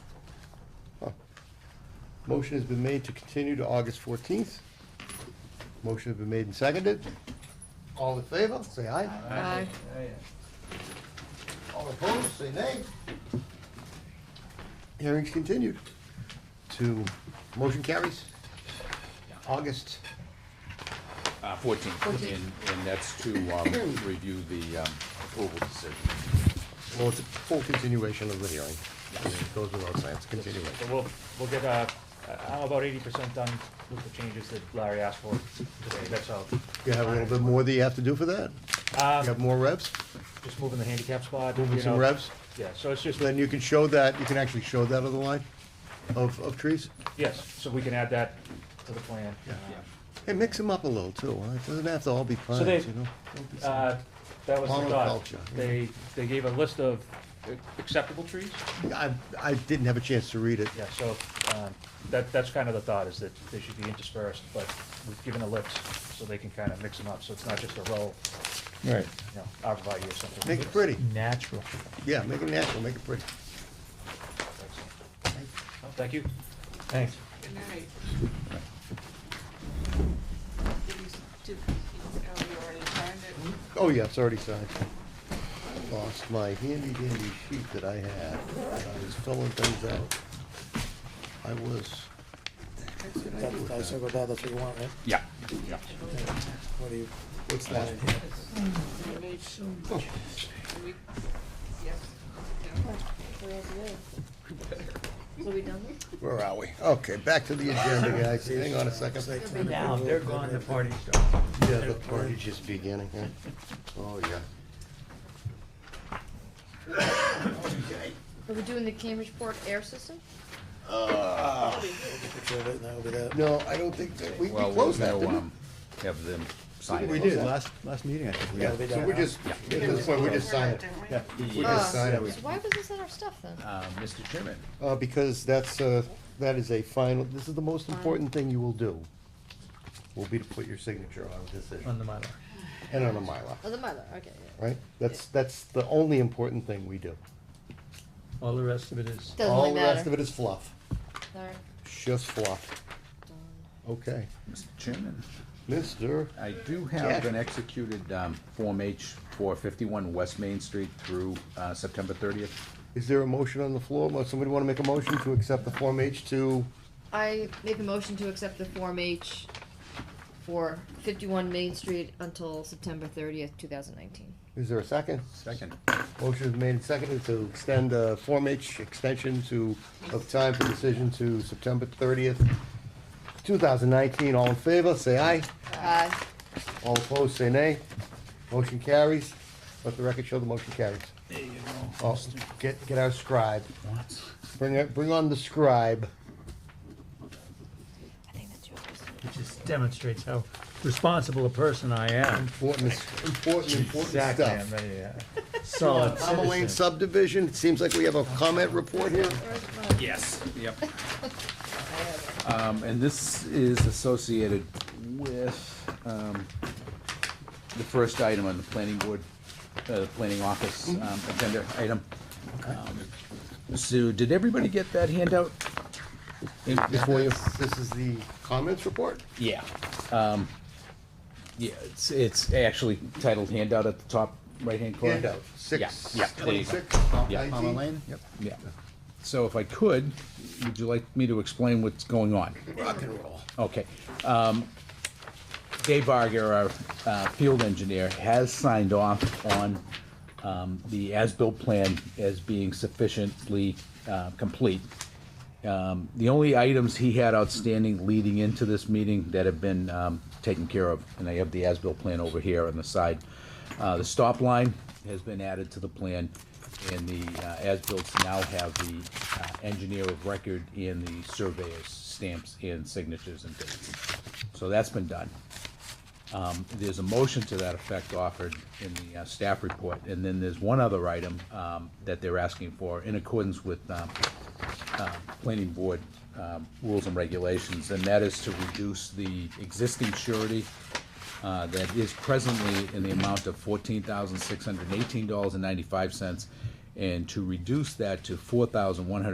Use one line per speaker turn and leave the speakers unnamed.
Motion has been made to continue to August fourteenth. Motion has been made and seconded. All in favor, say aye.
Aye.
All opposed, say nay. Hearing's continued to, motion carries. August,
Uh, fourteen, and,
Fourteen.
and that's to, um, review the, um, approval decision.
well, it's a full continuation of the hearing. It Goes without saying, it's a continuation.
But we'll, we'll get, uh, I'm about eighty percent done with the changes that Larry asked for today, that's all.
You have a little bit more that you have to do for that? You have
Um,
more reps,
just moving the handicap spot, you
moving some
know.
reps?
Yeah, so it's just,
Then you can show that, you can actually show that on the line of, of trees?
yes, so we can add that to the plan.
Hey, mix them up a little too, huh? It doesn't have to all be
they-
pines, you know? Don't be so-
Uh, that was the thought.
Monoculture, yeah.
They, they gave a list of acceptable trees.
I, I didn't have a chance to read it.
Yeah, so, um, that, that's kind of the thought, is that they should be interspersed, but we've given a list, so they can kind of mix them up, so it's not just a row,
Right.
you know, arborvitae or something.
Make it pretty.
Natural.
Yeah, make it natural, make it pretty.
Thank you. Thanks.
Good night. Did you, s- did, oh, you already signed it?
Oh, yeah, it's already signed. Lost my handy dandy sheet that I had. I was filling things out. I was,
That- I circled that, that's what you want, right?
Yeah, yeah.
What do you,
what's that?
You made so much. We, yes.
So we done this?
Where are we? Okay, back to the agenda, guys. Hang on a second.
be down, they're gone, the party
Yeah, the party's just beginning, huh? Oh, yeah.
Are we doing the Cambridgeport air system?
picture of it, and that'll be that.
No, I don't think that, we we
Well,
closed that,
we'll,
didn't we?
um, Have them sign it.
We did, last,
Last meeting, I think.
yeah,
they
so
don't
we
know.
just, at this point, we just signed it.
Didn't we?
Yeah.
We just
Uh,
signed
So
it.
why was this in our stuff then?
Uh, Mr. Chairman,
Uh, because that's, uh, that is a final, this is the most important thing you will do, will be to put your signature on a decision,
the Mylar.
and on a Mylar,
Oh, the mother, okay, yeah.
right? That's, that's the only important thing we do.
All the rest of it is.
Doesn't
All
really
the rest of
matter.
it is fluff,
All right,
just fluff.
done.
Okay,
Mr. Chairman,
Mr.
I do have
Yeah.
an executed, um, Form H for fifty-one West Main Street through, uh, September thirtieth.
Is there a motion on the floor? Mo- Somebody want to make a motion to accept the Form H to,
I make a motion to accept the Form H for fifty-one Main Street until September thirtieth, two thousand nineteen.
is there a second?
Second.
Motion is made and seconded to extend uh, Form H extension to, of time for decision to September thirtieth, two thousand nineteen. All in favor, say aye.
Aye.
All opposed, say nay. Motion carries. Let the record show the motion carries. There you go. Get, get our scribe. Bring, it- bring on the scribe.
I think that's yours.
It just demonstrates how responsible a person I am.
Important, important, important
Exactly,
stuff.
Solid
Palmer Lane
citizen.
subdivision, it seems like we have a comment report here.
Yes. Yep. Um, and this is associated with, um, the first item on the planning board, uh, planning office,
Mm-hmm.
um, agenda item. Um, So, did everybody get that handout? In- Before you?
This is the comments report?
Yeah. Um, yeah, it's, it's actually titled handout at the top right-hand corner.
Handout, six,
Yeah, yeah, there you go.
twenty-six,
Yeah.
nineteen. Lane?
Yep. Yeah. So if I could, would you like me to explain what's going on?
Rock and roll.
Okay. Um, Dave Barger, our uh, field engineer, has signed off on um, the as-built plan as being sufficiently uh, complete. Um, The only items he had outstanding leading into this meeting that have been um, taken care of, and I have the as-built plan over here on the side. Uh, The stop line has been added to the plan, and the uh, as-bills now have the uh, engineer of record and the surveyor's stamps and signatures and dates. So that's been done. Um, There's a motion to that effect offered in the uh, staff report, and then there's one other item um, that they're asking for in accordance with um, uh, planning board um, rules and regulations, and that is to reduce the existing surety uh, that is presently in the amount of fourteen thousand six hundred and eighteen dollars and ninety-five cents, and to reduce that to four thousand one hundred